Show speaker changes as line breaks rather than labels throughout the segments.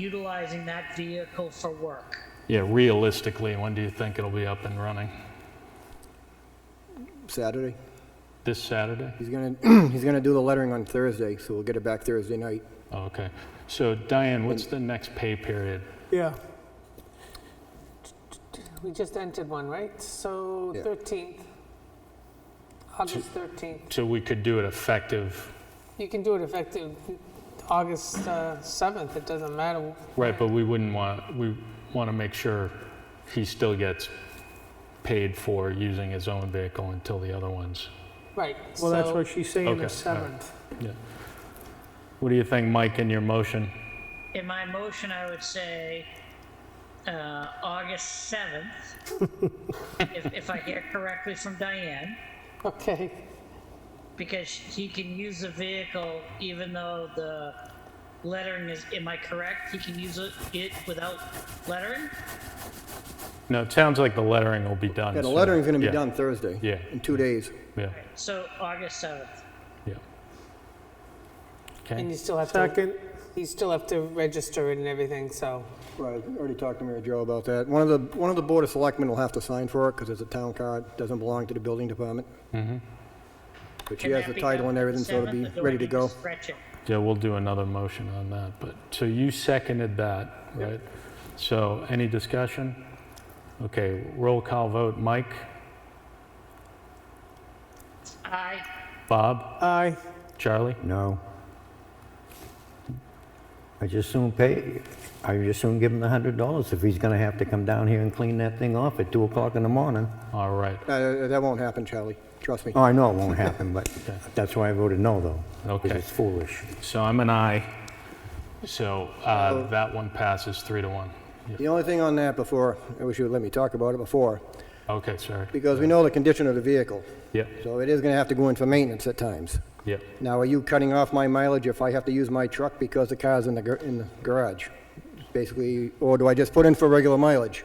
utilizing that vehicle for work.
Yeah, realistically, when do you think it'll be up and running?
Saturday.
This Saturday?
He's gonna, he's gonna do the lettering on Thursday, so we'll get it back Thursday night.
Oh, Okay. So Diane, what's the next pay period?
Yeah.
We just entered one, right? So
Yeah.
13th, August 13th.
So we could do it effective,
You can do it effective August uh, 7th, it doesn't matter.
right, but we wouldn't want, we want to make sure he still gets paid for using his own vehicle until the other ones.
Right.
Well, that's
so
what she's saying.
Okay.
The 7th.
What do you think, Mike, in your motion?
In my motion, I would say uh, August 7th, if, if I hear correctly from Diane,
Okay,
because he can use the vehicle even though the lettering is, am I correct? He can use it, it without lettering?
No, it sounds like the lettering will be done.
Yeah, the
soon.
lettering's gonna be
Yeah,
done Thursday.
Yeah.
In two days.
Yeah,
So August 7th.
yeah.
and
Okay,
you still have to,
Second,
you still have to register it and everything, so.
Right, I already talked to Mary Jo about that. One of the, one of the Board of Selectmen will have to sign for it, because it's a town card, doesn't belong to the building department.
Mm-hmm.
But she
Can
has
that
the
be
title
done
and
on
everything, so it'll
7th,
be
or do I
ready to
need
go.
Stretch it.
yeah, we'll do another motion on that, but, so you seconded that, right? So any discussion? Okay, roll call vote, Mike,
Aye.
Bob,
aye.
Charlie?
No. I just soon pay, I just soon give him the hundred dollars if he's gonna have to come down here and clean that thing off at two o'clock in the morning.
All right,
Uh, that won't happen, Charlie, trust me.
Oh, I know it won't happen, but that's why I voted no, though. 'cause
Okay.
it's foolish.
so I'm an aye. So uh, that one passes three to one. Yeah.
The only thing on that before, I wish you would let me talk about it before,
Okay, sorry.
because we know the condition of the vehicle,
Yep,
so it is gonna have to go in for maintenance at times.
yep.
Now, are you cutting off my mileage if I have to use my truck because the car's in the, gar- in the garage? Basically, or do I just put in for regular mileage?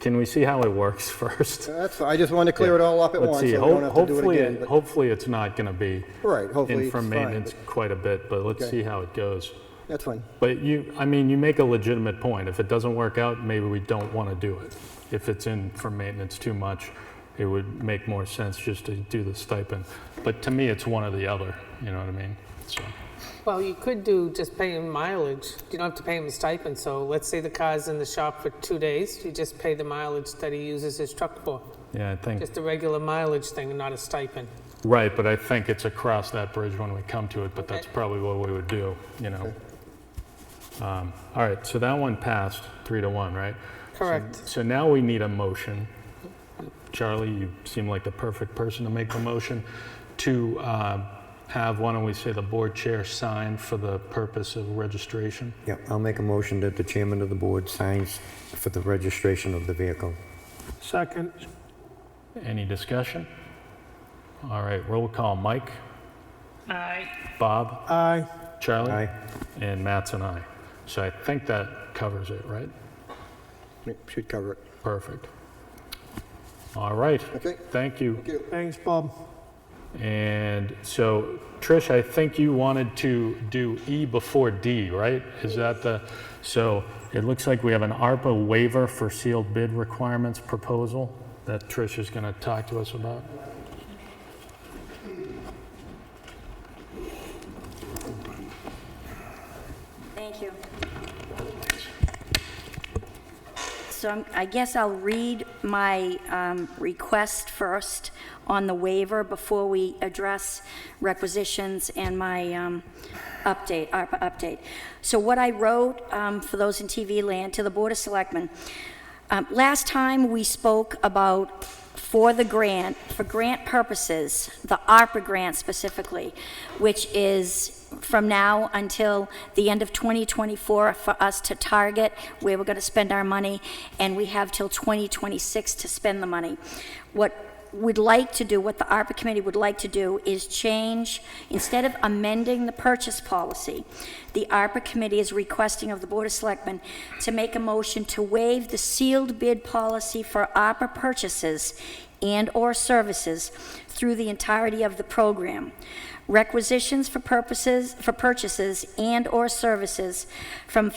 Can we see how it works first?
That's, fine. I just wanted to clear it all up at
Let's
once, so we
see.
don't
Ho-
have to do it
Hopefully,
again.
it-
but-
hopefully it's not going to be
Right, hopefully
in
it's
for
fine.
maintenance
but
quite a bit, but let's
Okay.
see how it goes.
That's fine.
But you, I mean, you make a legitimate point. If it doesn't work out, maybe we don't want to do it. If it's in for maintenance too much, it would make more sense just to do the stipend. But to me, it's one or the other, you know what I mean? So,
Well, you could do just pay him mileage. You don't have to pay him a stipend, so let's say the car's in the shop for two days, you just pay the mileage that he uses his truck for.
yeah, I think.
Just a regular mileage thing and not a stipend.
Right, but I think it's across that bridge when we come to it, but that's probably what we would do, you know? Um, All right, so that one passed, three to one, right?
Correct.
So now we need a motion. Charlie, you seem like the perfect person to make the motion to uh, have, why don't we say, the board chair sign for the purpose of registration?
Yeah, I'll make a motion that the chairman of the board signs for the registration of the vehicle.
Second,
Any discussion? All right, roll call. Mike,
Aye.
Bob,
aye.
Charlie?
Aye.
And Matt's an aye. So I think that covers it, right?
It Should cover it.
Perfect. All right.
Okay.
Thank you.
Thanks, Bob.
And so, Trish, I think you wanted to do E before D, right? Is that the, so it looks like we have an ARPA waiver for sealed bid requirements proposal that Trish is going to talk to us about.
Thank you. So I'm- I guess I'll read my um, request first on the waiver before we address requisitions and my um, update, ARPA update. So what I wrote, um, for those in TV land, to the Board of Selectmen, um, last time we spoke about for the grant, for grant purposes, the ARPA grant specifically, which is from now until the end of 2024 for us to target where we're going to spend our money, and we have till 2026 to spend the money. What would like to do, what the ARPA committee would like to do, is change, instead of amending the purchase policy, the ARPA committee is requesting of the Board of Selectmen to make a motion to waive the sealed bid policy for ARPA purchases and/or services through the entirety of the program. Requisitions for purposes, for purchases and/or services from